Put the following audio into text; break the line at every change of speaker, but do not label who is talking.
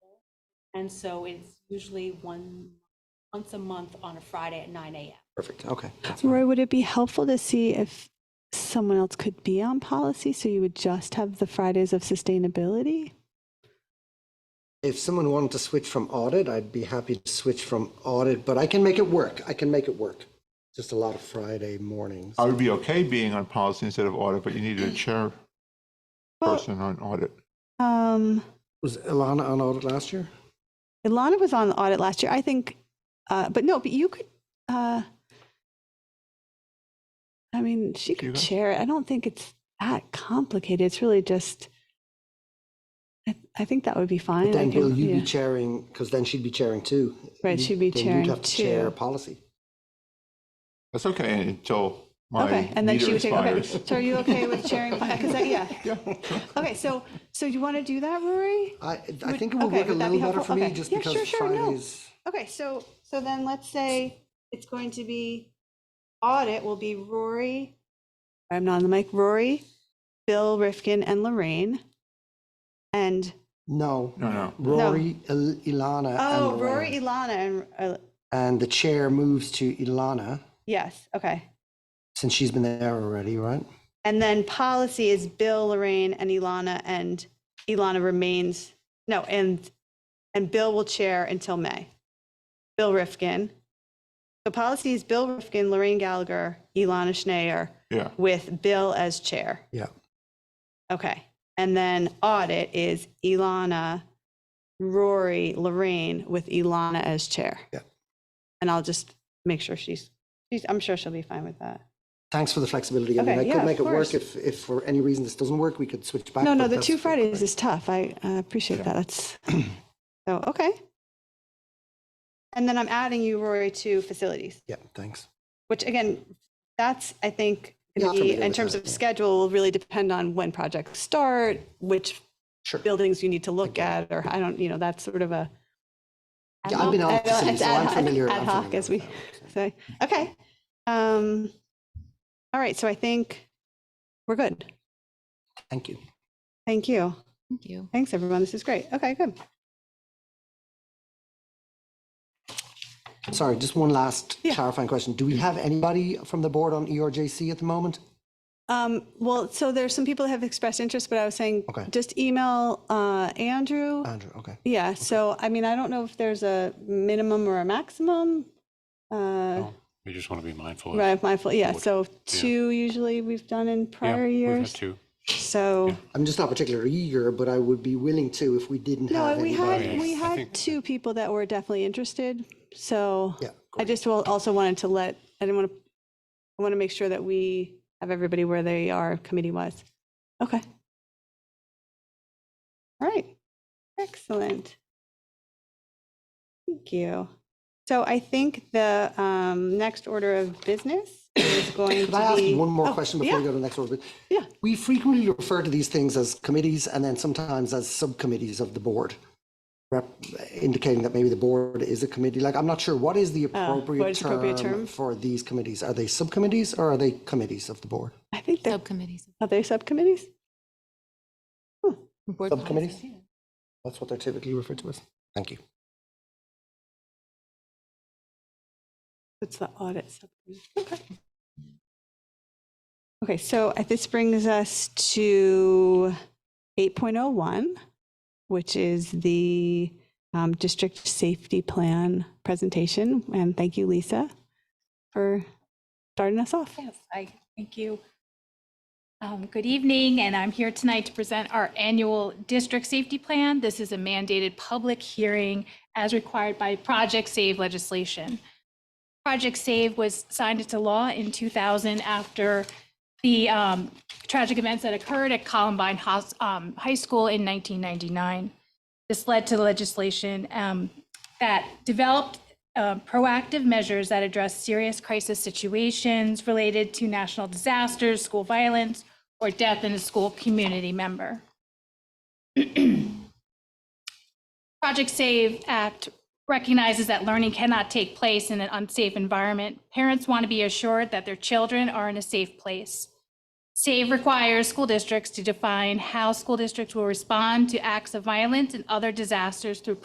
And so it's usually one, once a month on a Friday at nine AM.
Perfect. Okay. that's fine.
Roy, would it be helpful to see if someone else could be on policy so you would just have the Fridays of sustainability?
If someone wanted to switch from audit, I'd be happy to switch from audit, but I can make it work. I can make it work. Just a lot of Friday mornings.
I would be okay being on policy instead of audit, but you needed a chair
Well-
person on audit.
Um,
Was Ilana on audit last year?
Ilana was on the audit last year. I think, uh, but no, but you could. Uh, I mean, she
You
could
guys?
chair it. I don't think it's that complicated. It's really just. I, I think that would be fine.
But
I
then,
think-
Bill, you'd
yeah.
be chairing, because then she'd be chairing too.
Right,
You-
she'd be
then
chairing
You'd have to chair
too.
policy.
That's okay until my
okay, and then
meter
she would take. Okay,
expires.
so are you okay with chairing? Because yeah.
Yeah.
Okay, so so you want to do that, Rory?
I, I
Would-
think it would
okay,
work a
would
little
that be
better
helpful?
for me
Okay.
just
Yeah,
because
sure, sure, no.
Fridays.
Okay, so, so then let's say it's going to be, audit will be Rory. I'm not on the mic, Rory, Bill Rifkin and Lorraine. And,
No,
No, no.
Rory, Il- Ilana.
oh,
Uh, and
Rory,
Lorraine.
Ilana and, uh,
And the chair moves to Ilana,
yes, okay.
since she's been there already, right?
And then policy is Bill, Lorraine and Ilana and Ilana remains, no, and, and Bill will chair until May. Bill Rifkin. The policy is Bill Rifkin, Lorraine Gallagher, Ilana Schneider.
Yeah.
with Bill as chair.
Yeah.
Okay. And then audit is Ilana, Rory, Lorraine with Ilana as chair.
Yeah.
And I'll just make sure she's, she's, I'm sure she'll be fine with that.
Thanks for the flexibility. I mean,
Okay,
I
yeah,
could
of
make it
course.
work if, if for any reason this doesn't work, we could switch back.
No, no,
but
the
that's-
two Fridays is tough. I uh, appreciate that. That's, so, okay. And then I'm adding you, Rory, to facilities.
Yeah, thanks.
which again, that's, I think,
Yeah,
gonna
I'm
be,
familiar
in
with
terms
that,
of
yeah.
schedule, will really depend on when projects start, which
Sure.
buildings you need to look at, or I don't, you know, that's sort of a.
Yeah, I've been on
ad hoc-
facilities, so I'm
ad hoc-
familiar.
Ad
I'm
hoc,
familiar
as
with
we say. Okay. Um, all right, so I think we're good.
Thank you.
Thank you.
Thank you.
Thanks, everyone. This is great. Okay, good.
Sorry, just one last
Yeah.
clarifying question. Do we have anybody from the board on E ERJC at the moment?
Um, well, so there's some people that have expressed interest, but I was saying,
Okay.
just email, uh, Andrew.
Andrew, okay.
Yeah, so I mean, I don't know if there's a minimum or a maximum.
Oh,
Uh,
We just want to be mindful of.
right, mindful, yeah,
Forward.
so two usually we've done in
Yeah,
prior
we've had
years.
two.
So,
I'm just not particularly eager, but I would be willing to if we didn't
no,
have
we
anybody.
had,
Right.
we
I
had
think-
two people that were definitely interested. So
Yeah,
I just will- also wanted to let, I didn't want to, I want to make sure that we have everybody where they are committee wise. Okay. All right. Excellent. Thank you. So I think the um, next order of business is going to be.
Could I ask you one more
Oh,
question before we
yeah.
go to the next one?
Yeah.
We frequently refer to these things as committees and then sometimes as subcommittees of the board, rep- indicating that maybe the board is a committee. Like, I'm not sure, Oh, what is the appropriate
is the appropriate term?
term for these committees? Are they subcommittees or are they committees of the board?
I think they're,
Subcommittees.
are they subcommittees?
Board policy.
Subcommittees? That's what they're typically referred to as. Thank you.
It's the audit subcommittee. Okay. Okay, so uh, this brings us to 8.01, which is the um, district safety plan presentation. And thank you, Lisa, for starting us off.
Yes, I thank you. Um, Good evening, and I'm here tonight to present our annual district safety plan. This is a mandated public hearing as required by Project Save legislation. Project Save was signed into law in 2000 after the um, tragic events that occurred at Columbine Hos- um, High School in 1999. This led to legislation um, that developed uh, proactive measures that address serious crisis situations related to national disasters, school violence, or death in a school community member. Project SAVE Act recognizes that learning cannot take place in an unsafe environment. Parents want to be assured that their children are in a safe place. SAVE requires school districts to define how school districts will respond to acts of violence and other disasters through